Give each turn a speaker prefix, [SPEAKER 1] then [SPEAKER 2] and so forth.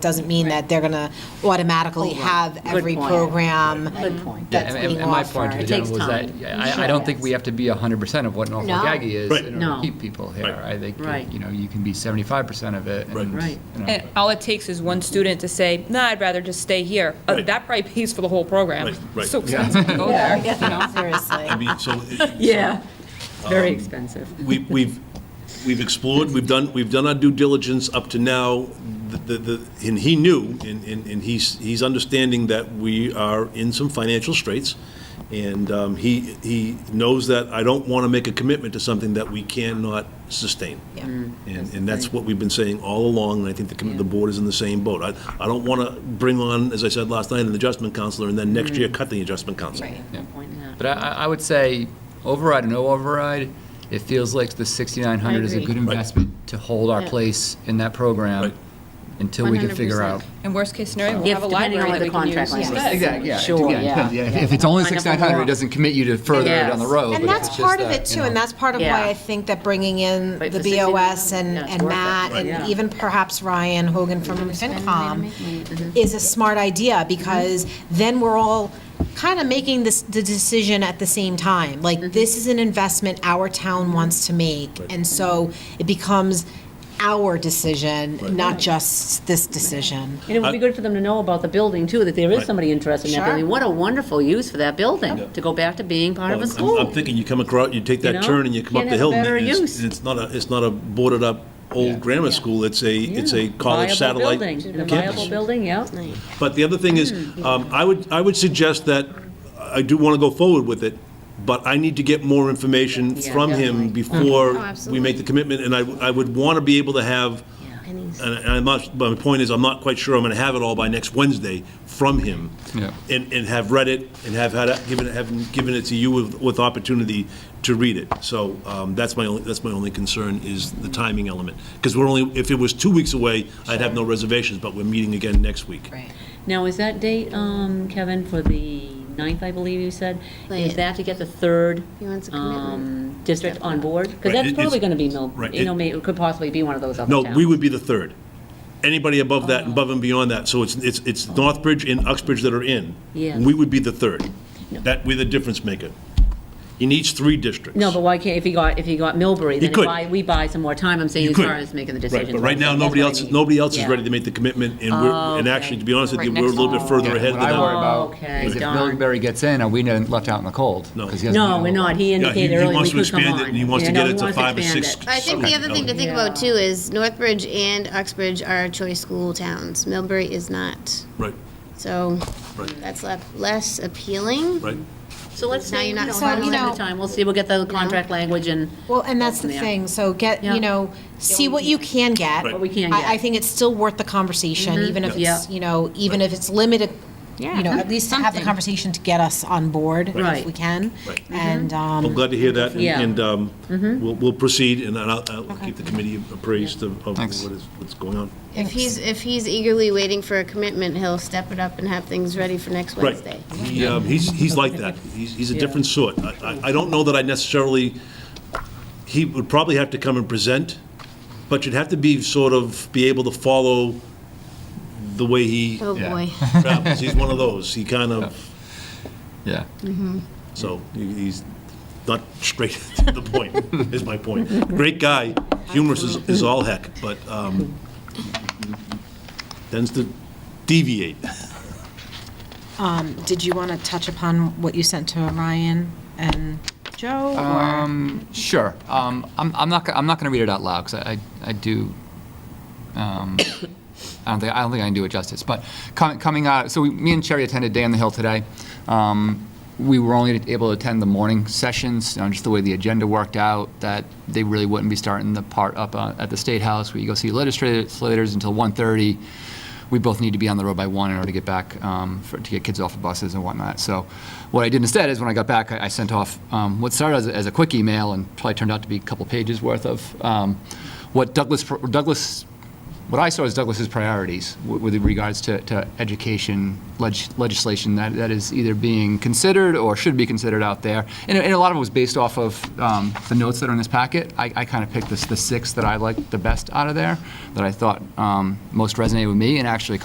[SPEAKER 1] doesn't mean that they're going to automatically have every
[SPEAKER 2] Oh, point.
[SPEAKER 1] program
[SPEAKER 2] Good point.
[SPEAKER 3] Yeah,
[SPEAKER 1] that's
[SPEAKER 3] and- and-
[SPEAKER 1] being
[SPEAKER 3] And my point to the
[SPEAKER 1] offered.
[SPEAKER 2] takes
[SPEAKER 3] gentleman was that,
[SPEAKER 2] time.
[SPEAKER 3] yeah, I,
[SPEAKER 2] Sure.
[SPEAKER 3] I don't think we have to be 100% of what Norfolk
[SPEAKER 1] No.
[SPEAKER 3] Aggie is
[SPEAKER 4] Right.
[SPEAKER 3] in order
[SPEAKER 2] No.
[SPEAKER 3] to keep people here. I think,
[SPEAKER 2] Right.
[SPEAKER 3] you know, you can be 75% of it. and,
[SPEAKER 2] Right.
[SPEAKER 3] you know,
[SPEAKER 5] And all it takes is one student to say, nah, I'd rather just stay here. Uh,
[SPEAKER 4] Right.
[SPEAKER 5] That probably pays for the whole program.
[SPEAKER 4] Right, right.
[SPEAKER 5] So expensive to go there.
[SPEAKER 1] Seriously.
[SPEAKER 4] I mean, so
[SPEAKER 2] Yeah,
[SPEAKER 4] um,
[SPEAKER 2] very expensive.
[SPEAKER 4] we- we've, we've explored, we've done, we've done our due diligence up to now. The, the, the- and he knew, and, and and he's, he's understanding that we are in some financial straits. And um, he, he knows that I don't want to make a commitment to something that we cannot sustain.
[SPEAKER 1] Yeah.
[SPEAKER 4] And, and that's what we've been saying all along, and I think the, commi- the board is in the same boat. I, I don't want to bring on, as I said last night, an adjustment counselor, and then next year cut the adjustment counselor.
[SPEAKER 1] Right.
[SPEAKER 3] Yeah.
[SPEAKER 2] Point in that.
[SPEAKER 3] But I, I- I would say, override or no override, it feels like the 6,900 is a
[SPEAKER 2] agree.
[SPEAKER 3] good
[SPEAKER 4] Right.
[SPEAKER 3] investment to hold our
[SPEAKER 2] Yeah.
[SPEAKER 3] place in that program
[SPEAKER 4] Right.
[SPEAKER 3] until we can figure out.
[SPEAKER 2] 100%.
[SPEAKER 5] And worst case scenario, we'll
[SPEAKER 2] If-
[SPEAKER 5] have a
[SPEAKER 2] depending on
[SPEAKER 5] library
[SPEAKER 2] what
[SPEAKER 5] that
[SPEAKER 2] the
[SPEAKER 5] we can use.
[SPEAKER 2] contract language
[SPEAKER 5] instead.
[SPEAKER 2] is.
[SPEAKER 3] Exactly, yeah. it
[SPEAKER 2] Sure,
[SPEAKER 3] again, it
[SPEAKER 2] yeah,
[SPEAKER 3] depends. Yeah,
[SPEAKER 2] yeah.
[SPEAKER 3] If it's only
[SPEAKER 2] Find out
[SPEAKER 3] 6,900,
[SPEAKER 2] more.
[SPEAKER 3] it doesn't commit you to further down the
[SPEAKER 2] Yes.
[SPEAKER 3] road.
[SPEAKER 1] And
[SPEAKER 3] but if
[SPEAKER 1] that's
[SPEAKER 3] it's just
[SPEAKER 1] part of
[SPEAKER 3] that,
[SPEAKER 1] it
[SPEAKER 3] you
[SPEAKER 1] too,
[SPEAKER 3] know.
[SPEAKER 1] and that's part of
[SPEAKER 2] Yeah.
[SPEAKER 1] why I think that bringing in
[SPEAKER 2] Right,
[SPEAKER 1] the
[SPEAKER 2] for 16,
[SPEAKER 1] BOS and,
[SPEAKER 2] yeah, it's
[SPEAKER 1] and
[SPEAKER 2] worth it.
[SPEAKER 1] Matt,
[SPEAKER 2] Right.
[SPEAKER 1] and even perhaps Ryan Hogan from FinCom is a smart idea, because
[SPEAKER 2] Mm-hmm.
[SPEAKER 1] then we're all kind of making this, the decision at the same time.
[SPEAKER 2] Mm-hmm.
[SPEAKER 1] Like, this is an investment our town wants to make, and so it becomes our decision, not just this decision.
[SPEAKER 2] And it would be good for them to know about the building, too, that there is
[SPEAKER 4] Right.
[SPEAKER 2] somebody interested in that
[SPEAKER 1] Sure.
[SPEAKER 2] building. What a wonderful use for that building, to go back to being part of a
[SPEAKER 4] I'm-
[SPEAKER 2] school.
[SPEAKER 4] I'm thinking you come across, you take
[SPEAKER 2] You
[SPEAKER 4] that
[SPEAKER 2] know?
[SPEAKER 4] turn and you come up
[SPEAKER 2] Can't
[SPEAKER 4] the
[SPEAKER 2] have
[SPEAKER 4] hill. and
[SPEAKER 2] better
[SPEAKER 4] it's-
[SPEAKER 2] use.
[SPEAKER 4] It's not a, it's not a boarded up old grammar school, it's a, it's a
[SPEAKER 2] Yeah.
[SPEAKER 4] college
[SPEAKER 2] Hmm. Viable
[SPEAKER 4] satellite
[SPEAKER 2] building. And A viable
[SPEAKER 4] campus.
[SPEAKER 2] building, yeah.
[SPEAKER 4] But the other thing is, um, I would, I would suggest that, I do want to go forward with it, but I need to get more information
[SPEAKER 2] Yeah,
[SPEAKER 4] from him
[SPEAKER 2] definitely.
[SPEAKER 4] before we make the commitment, and I, I would want to be able to have, and and I'm not, but my point is, I'm not quite sure I'm going to have it all by next Wednesday from him.
[SPEAKER 3] Yeah.
[SPEAKER 4] And, and have read it, and have had, it- given, it- have given it to you with, with opportunity to read it. So um, that's my only, that's my only concern, is the timing element. Because we're only, if it was two weeks away, I'd have no reservations, but we're meeting again next week.
[SPEAKER 1] Right.
[SPEAKER 2] Now, is that date, um, Kevin, for the ninth, I believe you said? Is
[SPEAKER 6] Right.
[SPEAKER 2] that to get the third
[SPEAKER 6] He wants a
[SPEAKER 2] um, district on board? Because
[SPEAKER 4] Right,
[SPEAKER 2] that's
[SPEAKER 4] it-
[SPEAKER 2] probably
[SPEAKER 4] it's-
[SPEAKER 2] going to be, Mill-
[SPEAKER 4] right,
[SPEAKER 2] you know,
[SPEAKER 4] it-
[SPEAKER 2] may- it could possibly be one of those other
[SPEAKER 4] No,
[SPEAKER 2] towns.
[SPEAKER 4] we would be the third. Anybody above that,
[SPEAKER 2] Oh.
[SPEAKER 4] above and beyond that, so it's, it's, it's Northbridge and Uxbridge that are in.
[SPEAKER 2] Yeah.
[SPEAKER 4] We would be the third.
[SPEAKER 2] No.
[SPEAKER 4] That, we're the difference maker. He needs three districts.
[SPEAKER 2] No, but why can't, if he got, if he got Millbury, then
[SPEAKER 4] could.
[SPEAKER 2] he buy- we buy some more time, I'm saying,
[SPEAKER 4] You
[SPEAKER 2] as
[SPEAKER 4] could.
[SPEAKER 2] far as making the
[SPEAKER 4] Right,
[SPEAKER 2] decision.
[SPEAKER 4] but right now, nobody else, nobody else is ready to make the commitment, and
[SPEAKER 2] Oh,
[SPEAKER 4] we're, and actually, to be honest with you, we're a little bit further
[SPEAKER 3] Yeah,
[SPEAKER 4] ahead
[SPEAKER 3] What
[SPEAKER 4] than
[SPEAKER 3] I worry
[SPEAKER 4] that.
[SPEAKER 3] about
[SPEAKER 2] Okay,
[SPEAKER 3] is if
[SPEAKER 2] darn.
[SPEAKER 3] Millbury gets in, are we not left out in the cold?
[SPEAKER 4] No.
[SPEAKER 3] 'Cause he doesn't
[SPEAKER 2] No,
[SPEAKER 3] have
[SPEAKER 2] we're
[SPEAKER 3] a-
[SPEAKER 2] not, he
[SPEAKER 4] Yeah, he-
[SPEAKER 2] indicated
[SPEAKER 4] he
[SPEAKER 2] earlier
[SPEAKER 4] wants
[SPEAKER 2] we
[SPEAKER 4] to
[SPEAKER 2] could come
[SPEAKER 4] expand
[SPEAKER 2] on.
[SPEAKER 4] it, and he wants
[SPEAKER 2] Yeah,
[SPEAKER 4] to
[SPEAKER 2] no,
[SPEAKER 4] get
[SPEAKER 2] he
[SPEAKER 4] it to
[SPEAKER 2] wants
[SPEAKER 4] five or
[SPEAKER 2] expand
[SPEAKER 4] six.
[SPEAKER 2] it.
[SPEAKER 6] I think the other thing to think about too is Northbridge and Uxbridge are choice school towns. Millbury is not.
[SPEAKER 4] Right,
[SPEAKER 6] So
[SPEAKER 4] Right.
[SPEAKER 6] that's le- less appealing.
[SPEAKER 4] right.
[SPEAKER 2] So let's
[SPEAKER 6] Now
[SPEAKER 2] say, you
[SPEAKER 6] you're
[SPEAKER 2] know,
[SPEAKER 6] not
[SPEAKER 2] have
[SPEAKER 6] so,
[SPEAKER 2] a
[SPEAKER 1] you
[SPEAKER 2] little bit
[SPEAKER 1] know-
[SPEAKER 2] of time, we'll see, we'll get the contract language and.
[SPEAKER 1] Well, and that's the
[SPEAKER 2] from there.
[SPEAKER 1] thing, so get,
[SPEAKER 2] Yeah.
[SPEAKER 1] you know, see what you can get.
[SPEAKER 4] Right. What
[SPEAKER 2] we can
[SPEAKER 1] I-
[SPEAKER 2] get. Mm-hmm.
[SPEAKER 1] I think it's still worth the conversation, even if
[SPEAKER 2] Yeah.
[SPEAKER 1] it's, you know, even if it's limited, you know, at least to have the conversation to get us on board,
[SPEAKER 2] Right. Mm-hmm.
[SPEAKER 1] if we can.
[SPEAKER 4] Right.
[SPEAKER 1] And,
[SPEAKER 4] I'm
[SPEAKER 1] um,
[SPEAKER 4] glad to hear that, and-
[SPEAKER 2] Yeah. Mm-hmm.
[SPEAKER 4] and um, we'll, we'll proceed, and I'll, I'll keep the committee appraised of of what
[SPEAKER 3] Thanks.
[SPEAKER 4] is, what's going on.
[SPEAKER 6] If he's, if he's eagerly waiting for a commitment, he'll step it up and have things ready for next
[SPEAKER 4] Right.
[SPEAKER 6] Wednesday.
[SPEAKER 4] He, um, He's, he's like that. He's, he's a different sort. I, I- I don't know that I necessarily, he would probably have to come and present, but you'd have to be sort of, be able to follow the way he
[SPEAKER 6] Oh,
[SPEAKER 3] Yeah.
[SPEAKER 6] boy.
[SPEAKER 4] travels. He's one of those. He kind of,
[SPEAKER 3] Yeah.
[SPEAKER 4] so he- he's not straight to the point, is my point. Great guy, humorous is, is all heck, but um, tends to deviate.
[SPEAKER 1] did you want to touch upon what you sent to Ryan and Joe?
[SPEAKER 3] Um,
[SPEAKER 1] or-
[SPEAKER 3] Sure. Um, I'm, I'm not, go- I'm not going to read it out loud, because I, I do, um, I don't think, I don't think I can do it justice, but com- coming out, so we- me and Sherry attended Day on the Hill today. Um, We were only able to attend the morning sessions, you know, just the way the agenda worked out, that they really wouldn't be starting the part up uh, at the State House, where you go see legislators until 1:30. We both need to be on the road by one in order to get back, um, for- to get kids off of buses and whatnot. So what I did instead is, when I got back, I I sent off um, what started as a- as a quick email and probably turned out to be a couple pages worth of um, what Douglas, Douglas what I saw as Douglas's priorities w- with regards to, to education leg- legislation that, that is either being considered or should be considered out there. And, and a lot of it was based off of um, the notes that are in this packet. I, I kind of picked this, the six that I liked the best out of there, that I thought um, most resonated with me and actually